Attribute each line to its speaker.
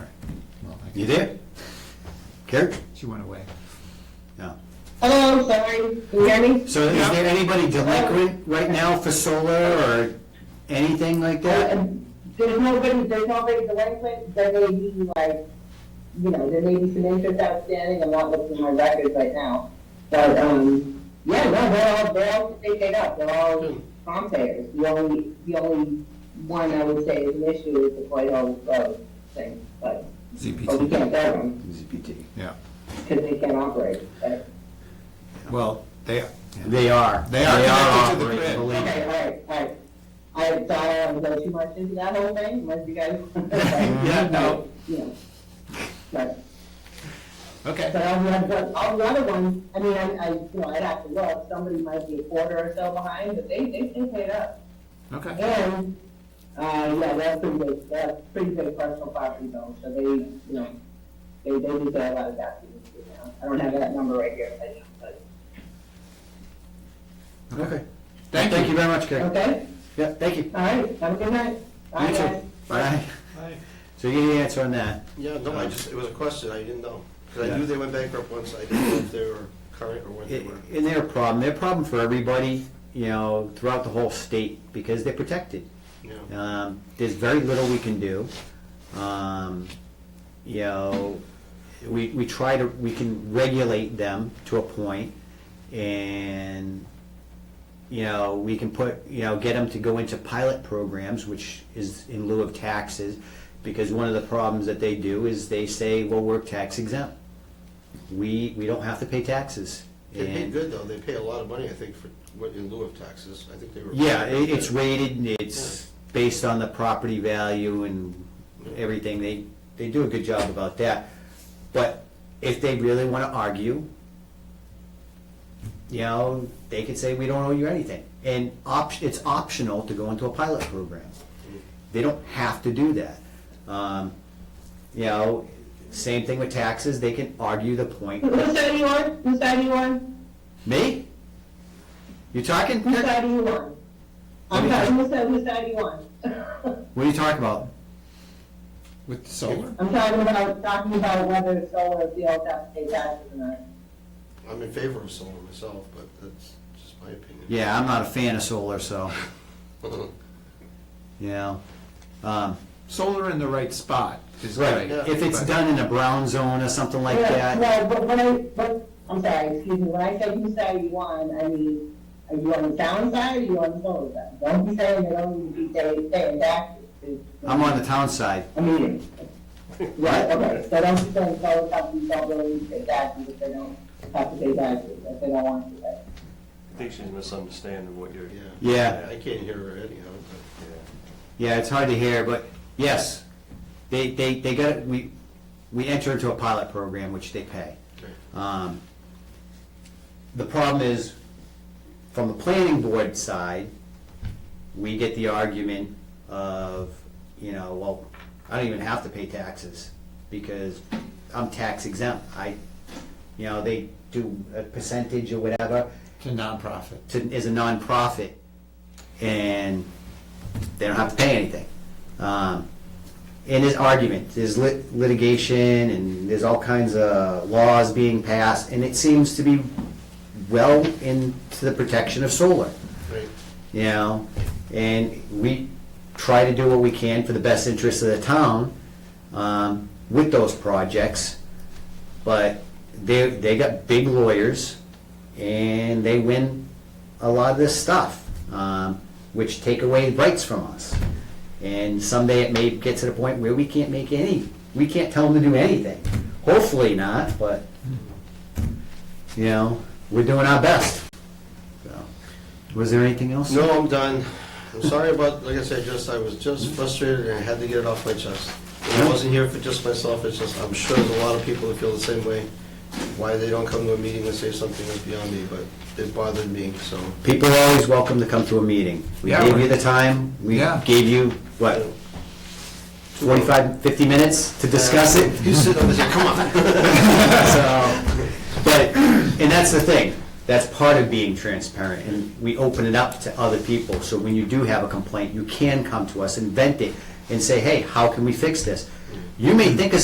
Speaker 1: You there? Karen?
Speaker 2: She went away.
Speaker 1: No.
Speaker 3: Hello, I'm sorry. Can you hear me?
Speaker 1: So is there anybody delinquent right now for solar or anything like
Speaker 3: Uh,
Speaker 1: that?
Speaker 3: There's nobody, there's nobody delinquent, there may be like, you know, there may be some interest outstanding, I'm not looking at my records right now. But, um, yeah, no, they're all, they're all, they paid up, they're all prompt payers. The only, the only one I would say is an issue is the White Oak Road thing, but, but we
Speaker 2: ZPT.
Speaker 3: can't bear them,
Speaker 1: ZPT.
Speaker 2: Yeah.
Speaker 3: because they can't operate. But-
Speaker 2: Well, they,
Speaker 1: They are.
Speaker 2: They are connected to the
Speaker 1: operating,
Speaker 2: grid.
Speaker 1: believe me.
Speaker 3: Okay, all right, all right. I thought I wouldn't go too much into that whole thing, unless you guys.
Speaker 1: Yeah, no.
Speaker 3: Yeah. But,
Speaker 2: okay.
Speaker 3: but all the other, all the other ones, I mean, I, I, you know, I'd have to look, somebody might be a quarter or so behind, but they, they, they paid up.
Speaker 2: Okay.
Speaker 3: And, uh, yeah, that's pretty big, that's pretty big personal property though, so they, you know, they, they do pay a lot of taxes, you know. I don't have that number right here, but- but,
Speaker 1: Okay.
Speaker 2: Thank
Speaker 1: Thank you
Speaker 2: you.
Speaker 1: very much, Karen.
Speaker 3: okay,
Speaker 1: Yeah, thank you.
Speaker 3: all right, have a good night. Bye,
Speaker 1: You too.
Speaker 3: guys.
Speaker 1: Bye.
Speaker 4: Hi.
Speaker 1: So you get the answer on that.
Speaker 4: Yeah, no, I just, it was a question, I didn't know. Because I knew
Speaker 1: Yeah.
Speaker 4: they went bankrupt once, I didn't know if they were current or when they were.
Speaker 1: And they're a problem, they're a problem for everybody, you know, throughout the whole state, because they're protected.
Speaker 4: Yeah.
Speaker 1: Um, there's very little we can do. Um, you know, we, we try to, we can regulate them to a point, and, you know, we can put, you know, get them to go into pilot programs, which is in lieu of taxes, because one of the problems that they do is they say, well, we're tax exempt. We, we don't have to pay taxes.
Speaker 4: They paid
Speaker 1: And-
Speaker 4: good, though, they pay a lot of money, I think, for, what, in lieu of taxes, I think they were.
Speaker 1: Yeah, it, it's rated, and it's based on the property value and everything, they, they do a good job about that. But if they really wanna argue, you know, they could say, we don't owe you anything. And op, it's optional to go into a pilot program. They don't have to do that. Um, you know, same thing with taxes, they can argue the point.
Speaker 3: Who's that you on? Who's that you on?
Speaker 1: Me? You talking?
Speaker 3: Who's
Speaker 1: What
Speaker 3: that you on?
Speaker 1: Let me
Speaker 3: I'm sorry,
Speaker 1: just-
Speaker 3: who's that, who's that you on?
Speaker 1: are you talking about?
Speaker 2: With the solar.
Speaker 3: I'm talking about, talking about whether solar fields have to pay taxes or not.
Speaker 4: I'm in favor of solar myself, but that's just my opinion.
Speaker 1: Yeah, I'm not a fan of solar, so, you know. Um,
Speaker 2: Solar in the right spot is
Speaker 1: Right,
Speaker 2: right.
Speaker 4: yeah.
Speaker 1: if it's
Speaker 2: but-
Speaker 1: done in a brown zone or something like that,
Speaker 3: No, but when I, but, I'm sorry, excuse me, when I say who's that you on, I mean, are you on the town side or you on the solar side? Don't be saying they don't need to be pay- paying taxes.
Speaker 1: I'm on the town side.
Speaker 3: I mean, right, okay, so don't be saying solar companies don't really need to pay taxes if they don't have to pay taxes, if they don't want to. right?
Speaker 5: I think she's misunderstanding what you're,
Speaker 4: Yeah.
Speaker 1: Yeah.
Speaker 4: I can't hear her anyhow, but,
Speaker 5: yeah.
Speaker 1: Yeah, it's hard to hear, but yes, they, they, they got, we, we enter into a pilot program, which they pay.
Speaker 4: okay.
Speaker 1: Um, The problem is, from the planning board side, we get the argument of, you know, well, I don't even have to pay taxes because I'm tax exempt. I, you know, they do a percentage or whatever
Speaker 2: To nonprofit.
Speaker 1: to, as a nonprofit and they don't have to pay anything. Um, and there's argument, there's lit- litigation, and there's all kinds of laws being passed, and it seems to be well into the protection of solar,
Speaker 4: Right,
Speaker 1: you know? And we try to do what we can for the best interest of the town um, with those projects, but they, they got big lawyers, and they win a lot of this stuff, um, which take away rights from us. And someday it may get to the point where we can't make any, we can't tell them to do anything. Hopefully not, but, you know, we're doing our best. So, Was there anything else?
Speaker 4: no, I'm done. I'm sorry about, like I said, just, I was just frustrated and I had to get it off my chest. And I wasn't here for just myself, it's just, I'm sure there's a lot of people that feel the same way. Why they don't come to a meeting and say something is beyond me, but it bothered me, so.
Speaker 1: People are always welcome to come to a meeting. We
Speaker 2: Yeah,
Speaker 1: gave
Speaker 2: we're-
Speaker 1: you the time, we
Speaker 2: Yeah.
Speaker 1: gave you, what, 45, 50 minutes to discuss it?
Speaker 4: You sit on this, come on.
Speaker 1: So, but, and that's the thing, that's part of being transparent, and we open it up to other people. So when you do have a complaint, you can come to us and vent it and say, hey, how can we fix this? You may think of